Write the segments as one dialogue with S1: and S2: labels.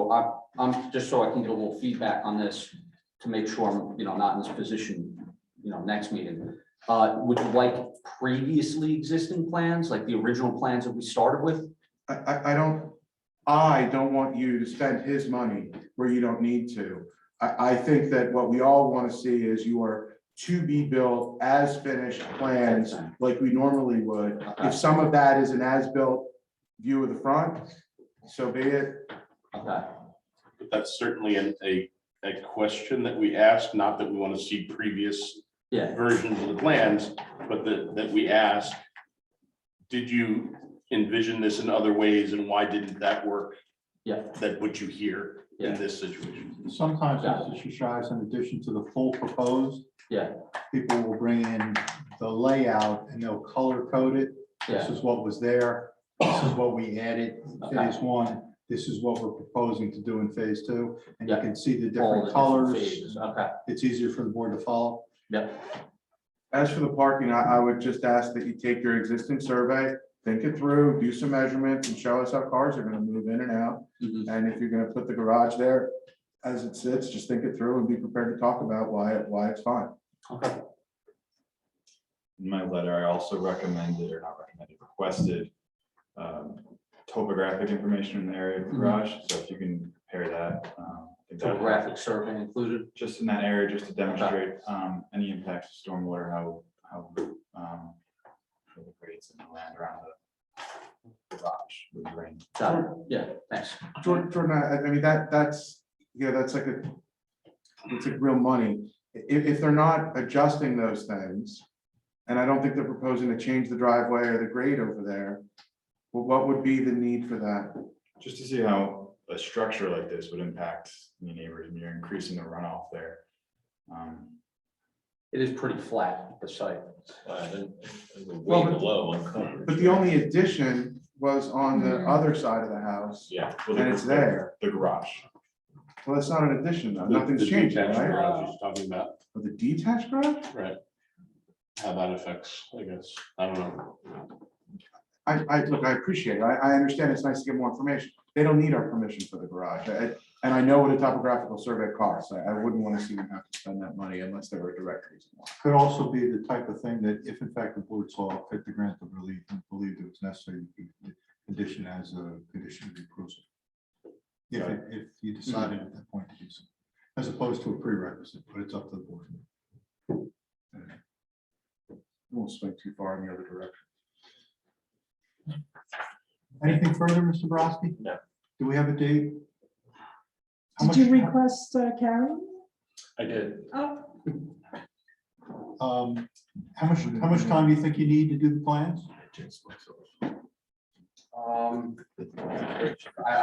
S1: I, I'm, just so I can get a little feedback on this to make sure I'm, you know, not in this position, you know, next meeting. Uh, would you like previously existing plans, like the original plans that we started with?
S2: I, I, I don't, I don't want you to spend his money where you don't need to. I, I think that what we all want to see is your to be built as finished plans like we normally would. If
S1: Okay,
S2: some of that is an as-built view of the front, so be it.
S1: okay,
S3: But that's certainly an- a, a question that we ask, not that we want to see previous
S1: yeah,
S3: versions of the plans, but that, that we ask, did you envision this in other ways and why didn't that work?
S1: Yeah.
S3: That what you hear in
S1: Yeah.
S3: this situation.
S4: Sometimes, Mr. Shishai, in addition to the full proposed.
S1: Yeah.
S4: People will bring in the layout and they'll color code it. This
S1: yeah,
S4: is what was there. This is what we added in phase one. This is what we're proposing to do in phase two. And you
S1: Yeah.
S4: can see
S1: all
S4: the
S1: the
S4: different
S1: different
S4: colors.
S1: phases, Okay,
S4: It's easier for the board to follow.
S1: yeah,
S2: As for the parking, I, I would just ask that you take your existing survey, think it through, do some measurements and show us how cars are gonna move in and out.
S1: mhm,
S2: And if you're gonna put the garage there as it sits, just think it through and be prepared to talk about why, why it's fine.
S1: okay,
S5: in my letter, I also recommended, or not recommended, requested um, topographic information in the area of the
S2: Mm-hmm.
S1: Mhm.
S5: garage, so if you can compare that. um, I think that would help.
S1: topographic survey included,
S5: Just in that area, just to demonstrate um, any impacts to stormwater, how, how um, how the grades and the land around the garage would drain.
S1: got it, yeah, thanks,
S2: Jordan, Jordan, I, I mean, that, that's, you know, that's like a, it's like real money. If, if they're not adjusting those things, and I don't think they're proposing to change the driveway or the grade over there, well, what would be the need for that?
S5: Just to see how a structure like this would impact the neighbors, and you're increasing the runoff there. Um,
S1: it is pretty flat, the site.
S2: Well, but- But the only addition was on the
S3: Mm-hmm.
S6: Mhm.
S2: other side of the house.
S5: Yeah. well, the-
S2: And it's there.
S5: The garage.
S2: Well, that's not an addition though.
S3: The-
S2: Nothing's
S3: the
S2: changed,
S3: detached
S2: right?
S3: garage he's Talking about,
S2: But The detached garage?
S3: right. How that affects, I guess, I don't know.
S2: I, I, look, I appreciate it. I, I understand it's nice to get more information. They don't need our permission for the garage. I- And I know what a topographical survey costs. I, I wouldn't want to see them have to spend that money unless there were a direct reason. why.
S4: Could also be the type of thing that if in fact the board saw fit to grant the relief and believed it was necessary, you could condition as a condition of the approval. If, it- if you decided at that point to do so, as opposed to a prerequisite, but it's up to the board.
S2: Won't swing too far in the other direction.
S4: Anything further, Mr. Brodsky?
S3: No.
S4: Do we have a date? How
S6: Did you
S4: much-
S6: request uh, Karen?
S3: I did.
S6: Oh,
S4: Um, how much, how much time do you think you need to do the plans?
S1: Um, I,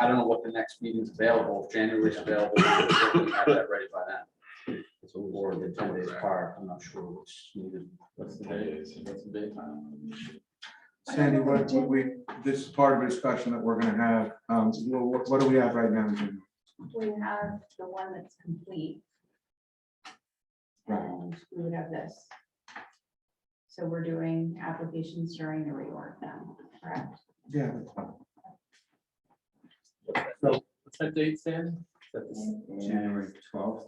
S1: I don't know what the next meeting's available, if January's available. we'll certainly Have that ready by then. It's a war, the ten days apart, I'm not sure what's needed. What's the date? What's the date?
S2: Sandy, what, what we, this is part of a discussion that we're gonna have. Um, wha- wha- what, do we have right now? Jim?
S7: We have the one that's complete.
S2: Right.
S7: And we would have this. So we're doing applications during the reorg now, correct?
S2: Yeah. that's fine.
S8: What's that date, Sam?
S7: January
S8: twelfth.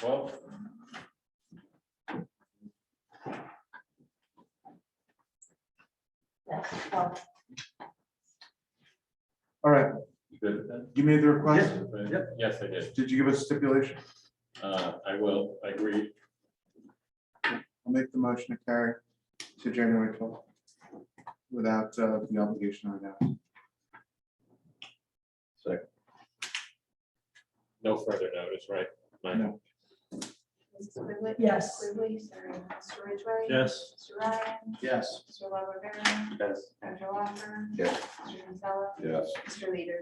S8: Twelve.
S7: Yes. Well,
S2: All right,
S8: Good with that?
S2: you made the request.
S1: Yep.
S8: Yes, I did.
S2: Did you give us stipulation?
S8: Uh, I will, I agree.
S2: I'll make the motion to carry to January twelfth without uh, the obligation right now.
S8: No further notice, right? Mike?
S2: No.
S7: Mrs. Quigley?
S6: Yes.
S7: Quigley, sorry, Mr. Ridgway?
S8: Yes.
S7: Mr. Ryan?
S4: Yes.
S7: Mr. La Rivera?
S8: Yes.
S7: Dr. Walker?
S2: Yes.
S7: Mr. Gonzalez?
S3: Yes.
S7: Mr. Leader?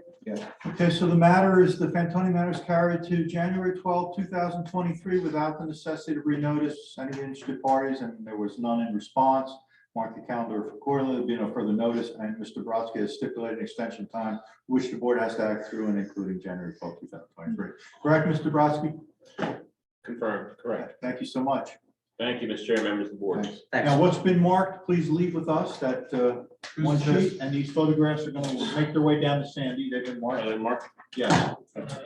S4: Okay, so the matter is, the Fantoni matter is carried to January twelfth, two thousand twenty-three without the necessity to renotice any interested parties, and there was none in response. Mark the calendar for quarterly, there'll be no further notice, and Mr. Brodsky has stipulated an extension time, which the board has to act through and including January twelfth, two thousand twenty-three. Correct, Mr. Brodsky?
S8: Confirmed, correct.
S4: Thank you so much.
S8: Thank you, Mr. Chair, members of the board.
S4: Thanks.
S1: Thanks.
S4: Now, what's been marked, please leave with us, that uh, one
S2: Who's this?
S8: Uh,
S4: sheet, and these photographs are gonna make their way down to Sandy, they've been marked.
S8: Mark,
S4: Yes.